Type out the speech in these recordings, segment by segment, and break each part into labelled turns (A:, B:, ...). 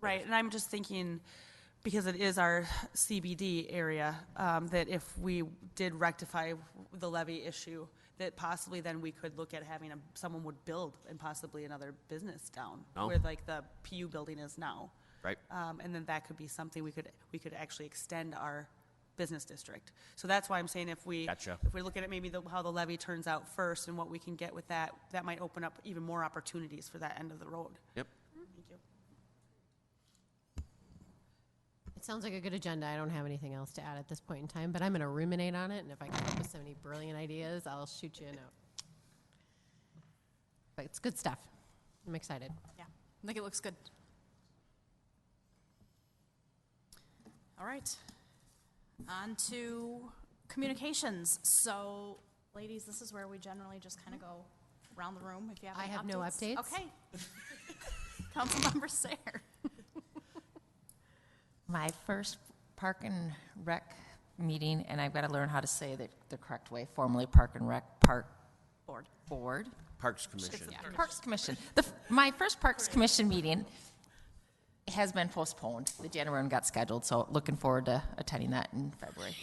A: Right, and I'm just thinking, because it is our CBD area, um, that if we did rectify the levy issue, that possibly then we could look at having a, someone would build and possibly another business down.
B: No.
A: Where like the PU building is now.
B: Right.
A: Um, and then that could be something we could, we could actually extend our business district. So that's why I'm saying if we.
B: Gotcha.
A: If we look at it, maybe the, how the levy turns out first and what we can get with that, that might open up even more opportunities for that end of the road.
B: Yep.
A: Thank you.
C: It sounds like a good agenda. I don't have anything else to add at this point in time, but I'm going to ruminate on it, and if I come up with so many brilliant ideas, I'll shoot you a note. But it's good stuff. I'm excited.
D: Yeah, I think it looks good. All right. On to communications. So, ladies, this is where we generally just kind of go around the room if you have
C: I
D: any
C: have no updates.
D: Okay. Councilmember Sayer.
E: My first Park and Rec meeting, and I've got to learn how to say the, the correct way, formerly Park and Rec, Park. Board. Board,
B: Parks Commission.
E: Parks Commission. The, f- my first Parks Commission meeting has been postponed. The January one got scheduled, so looking forward to attending that in February.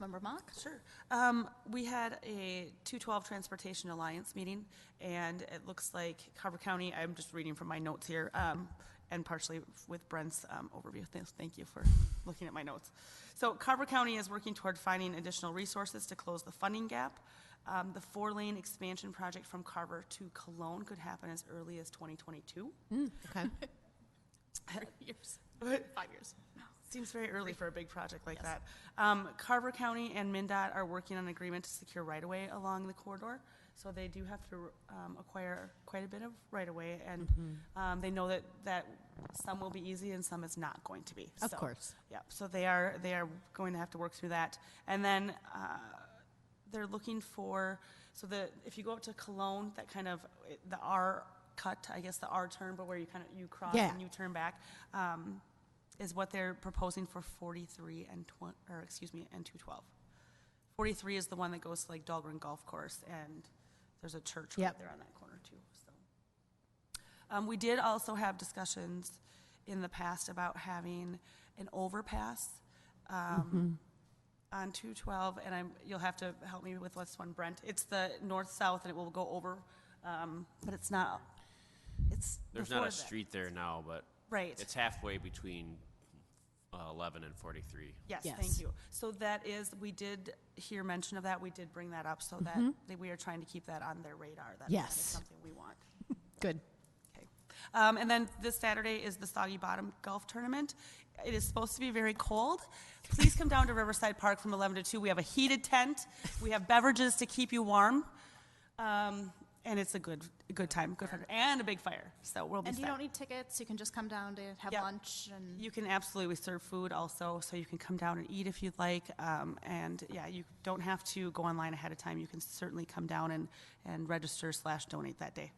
D: Councilmember Mock.
A: Sure. Um, we had a 212 Transportation Alliance meeting, and it looks like Carver County, I'm just reading from my notes here, um, and partially with Brent's um, overview. Thanks- Thank you for looking at my notes. So Carver County is working toward finding additional resources to close the funding gap. Um, The four-lane expansion project from Carver to Cologne could happen as early as 2022.
C: Okay.
D: Years.
A: But
D: Five years.
A: Seems very early for a big project like that. Um, Carver County and MinDOT are working on an agreement to secure right-of-way along the corridor. So they do have to um, acquire quite a bit of right-of-way, and
C: Mm-hmm.
A: um, they know that, that some will be easy and some is not going to be.
C: Of
A: So-
C: course.
A: Yep, so they are, they are going to have to work through that. And then uh, they're looking for, so the, if you go up to Cologne, that kind of, the R cut, I guess the R turn, but where you kind of, you cross
C: Yeah.
A: and you turn back. um, is what they're proposing for 43 and 20, or excuse me, and 212. 43 is the one that goes to like Dahlgren Golf Course, and there's a church right
C: Yep.
A: there on that corner too, so. Um, we did also have discussions in the past about having an overpass,
C: Mm-hmm.
A: um, on 212, and I'm, you'll have to help me with what's one, Brent. It's the north-south, and it will go over, um, but it's not, it's.
B: There's not
A: before
B: a
A: that.
B: street there now, but
A: Right.
B: it's halfway between uh, 11 and 43.
A: Yes,
C: Yes.
A: thank you. So that is, we did hear mention of that, we did bring that up, so that, that we are trying to keep that on their radar. that that is
C: Mm-hmm. Yes.
A: Something we want.
C: Good.
A: Okay. Um, and then this Saturday is the Soggy Bottom Golf Tournament. It is supposed to be very cold. Please come down to Riverside Park from 11 to 2. We have a heated tent. We have beverages to keep you warm. Um, and it's a good, a good time, good fun, and a big fire, so we'll be
D: And
A: set.
D: you don't need tickets. You can just come down to have
A: Yep.
D: lunch and
A: You can absolutely serve food also, so you can come down and eat if you'd like. Um, and yeah, you don't have to go online ahead of time. You can certainly come down and, and register slash donate that day.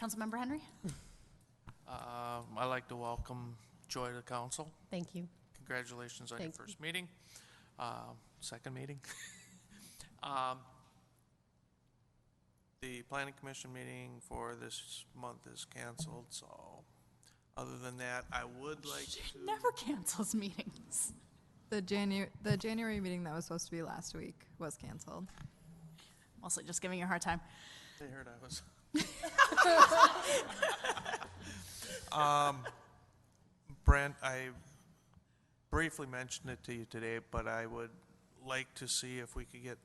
D: Councilmember Henry.
F: Um, I'd like to welcome Joy to the council.
C: Thank you.
F: Congratulations on your
C: Thank you.
F: first meeting, um, second meeting. Um, The planning commission meeting for this month is canceled, so other than that, I would like to.
D: She never cancels meetings.
G: The Janu- the January meeting that was supposed to be last week was canceled.
D: Mostly just giving you a hard time.
F: They heard I was. um, Brent, I briefly mentioned it to you today, but I would like to see if we could get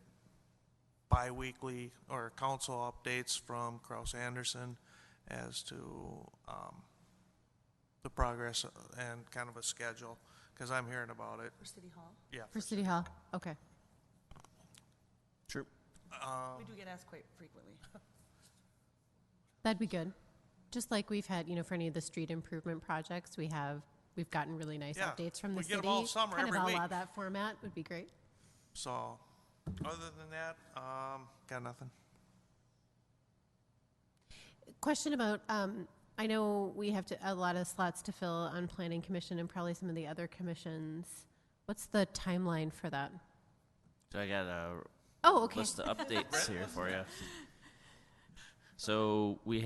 F: bi-weekly or council updates from Kraus Anderson as to um, the progress and kind of a schedule, because I'm hearing about it.
A: For City Hall?
F: Yeah.
C: For City Hall. Okay.
B: True.
A: We
F: Um,
A: do get asked quite frequently.
C: That'd be good. Just like we've had, you know, for any of the street improvement projects, we have, we've gotten really nice
F: Yeah,
C: updates from the
F: we
C: city.
F: get 'em all summer, every
C: Kind of a la
F: week.
C: that format would be great.
F: So, other than that, um, got nothing.
C: Question about, um, I know we have to, a lot of slots to fill on planning commission and probably some of the other commissions. What's the timeline for that?
B: So I got a
C: Oh, okay.
B: list of updates here for you. So we